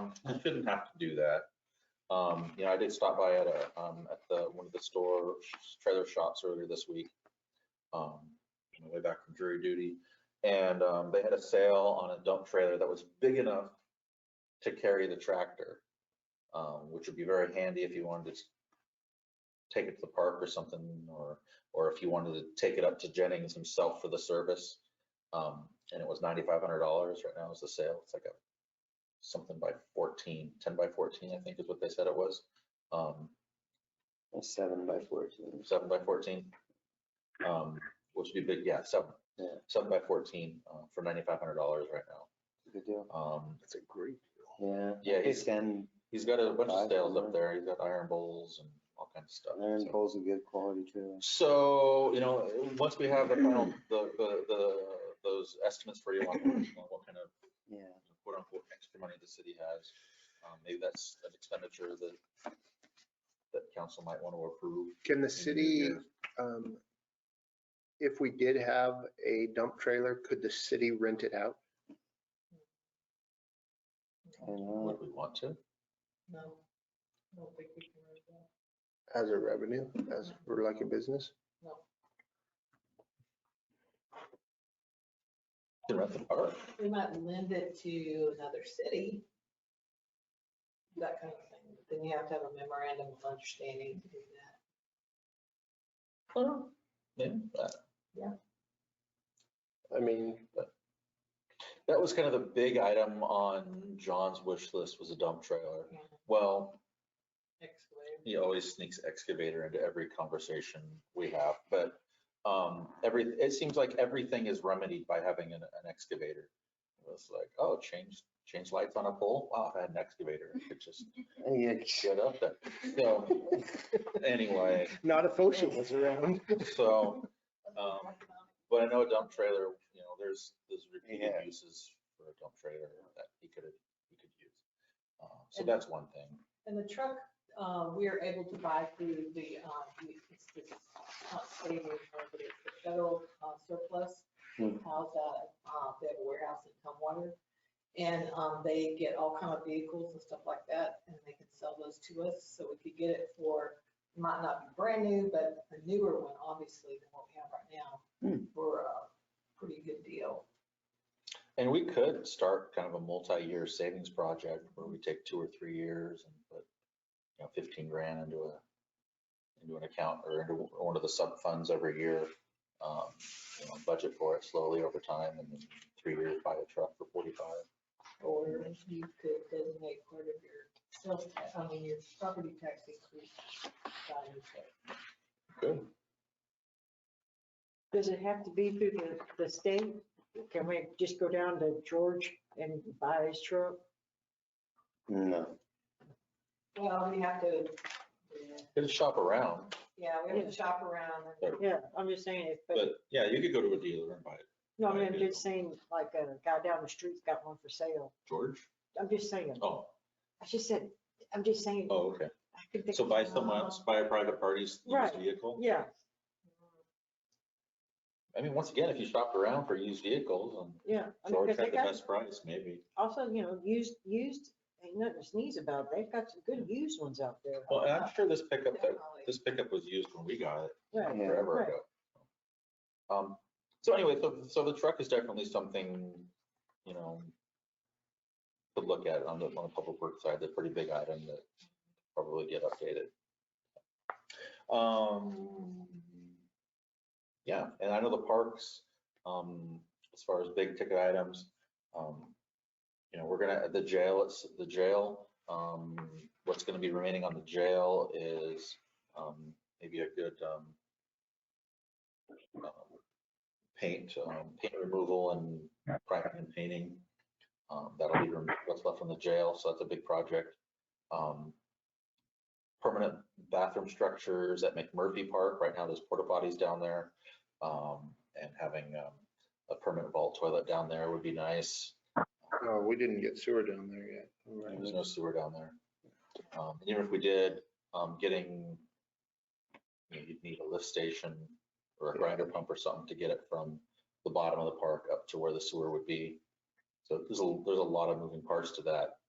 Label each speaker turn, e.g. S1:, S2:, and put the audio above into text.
S1: Um, you shouldn't have to do that. Um, you know, I did stop by at a, um, at the, one of the store trailer shops earlier this week. Um, on my way back from jury duty. And, um, they had a sale on a dump trailer that was big enough to carry the tractor. Um, which would be very handy if you wanted to take it to the park or something, or, or if you wanted to take it up to Jennings himself for the service. Um, and it was ninety-five hundred dollars right now is the sale. It's like a something by 14, 10 by fourteen, I think is what they said it was. Um,
S2: A seven by fourteen.
S1: seven by fourteen. Um, which would be big, yeah, seven,
S2: Yeah.
S1: seven by fourteen, uh, for ninety-five hundred dollars right
S2: Good deal.
S1: now. Um,
S3: That's a great deal.
S2: Yeah.
S1: Yeah,
S2: I
S1: he's-
S2: think Then
S1: he's got a bunch of
S2: Five
S1: sales up
S2: hundred.
S1: there. He's got iron bowls and all kinds of stuff.
S2: Iron
S1: so.
S2: Pole's a good quality trailer.
S1: So, you know, once we have the final, the, the, the, those estimates for you on on what kind of
S2: Yeah.
S1: quote unquote extra money the city has. Um, maybe that's an expenditure that, that council might want to approve. in
S3: Can the
S1: the new
S3: city,
S1: year.
S3: um, if we did have a dump trailer, could the city rent it out?
S2: I don't know.
S1: Would we want to?
S4: No, I don't think we can write that.
S3: As a revenue, as for like a business?
S1: To rent the park?
S4: We might lend it to another city. That kind of thing. But Then you have to have a memorandum of understanding to do that.
S1: Yeah, that,
S3: I mean,
S1: that was kind of the big item on John's wish list was a dump trailer.
S4: Yeah.
S1: Well,
S4: Excavator.
S1: he always sneaks excavator into every conversation we have, but um, every, it seems like everything is remedied by having an, an excavator. It's like, oh, change, change lights on a pole? Wow, if I had an excavator, I could just
S2: Yeah.
S1: get up there. So, anyway,
S3: not if OSHA was around.
S1: so, Um, but I know a dump trailer, you know, there's, there's repeated
S2: Yeah.
S1: uses for a dump trailer that he could, he could use. Um, So
S4: And-
S1: that's one thing.
S4: And the truck, uh, we are able to buy through the, um, it's uh, this, not city, but it's the federal uh, surplus.
S2: Hmm.
S4: House out, uh, they have a warehouse in Tumwater. And, um, they get all kind of vehicles and stuff like that, and they can sell those to us, so we could get it for, might not be brand new, but a newer one, obviously, than what we have right now.
S2: Hmm.
S4: For a pretty good deal.
S1: And we could start kind of a multi-year savings project where we take two or three years and put, you know, fifteen grand into a, into an account or into one of the sub-funds every year. Um, you know, budget for it slowly over time and then three years buy a truck for forty-five.
S4: Or if you could designate part of your sales tax, I mean, your property tax increase. by your sales.
S1: Good.
S5: Does it have to be through the, the state? Can we just go down to George and buy his truck?
S2: No.
S4: Well, we have to,
S1: Could shop around,
S4: yeah, we have to shop around.
S5: Yeah, I'm just saying it, but,
S1: but yeah, you could go to a dealer and buy it.
S5: no, I mean, I'm just saying, like, a guy down the street's got one for sale.
S1: George?
S5: I'm just saying,
S1: Oh,
S5: I just said, I'm just saying.
S1: oh, okay.
S5: I could think
S1: So
S5: of-
S1: buy someone else, buy a private party's used
S5: Right.
S1: vehicle?
S5: Yeah,
S1: I mean, once again, if you shopped around for used vehicles
S5: yeah. I
S1: and
S5: mean,
S1: George
S5: 'cause
S1: had
S5: they
S1: the
S5: got,
S1: best price, maybe.
S5: also, you know, used, used, ain't nothing to sneeze about. They've got some good used ones out there.
S1: Well, and I'm sure this pickup, that-
S4: Definitely.
S1: this pickup was used when we got it
S5: Right.
S2: Yeah.
S1: forever
S5: right.
S1: ago. Um, so anyway, so, so the truck is definitely something, you know, to look at on the, on the public works side, the pretty big item that probably get updated. Um, yeah, and I know the parks, um, as far as big ticket items, um, you know, we're gonna, the jail, it's the jail, um, what's gonna be remaining on the jail is, um, maybe a good, um, um, paint, um, paint removal and priming and painting. Um, that'll be rem- what's left from the jail, so that's a big project. Um, permanent bathroom structures at McMurphy Park, right now there's porta potties down there. Um, and having, um, a permanent vault toilet down there would be nice.
S3: Oh, we didn't get sewer down there yet.
S1: Right, There's no sewer down there. Um, and Even if we did, um, getting, you know, you'd need a lift station or a grinder pump or something to get it from the bottom of the park up to where the sewer would be. So there's a, there's a lot of moving parts to that.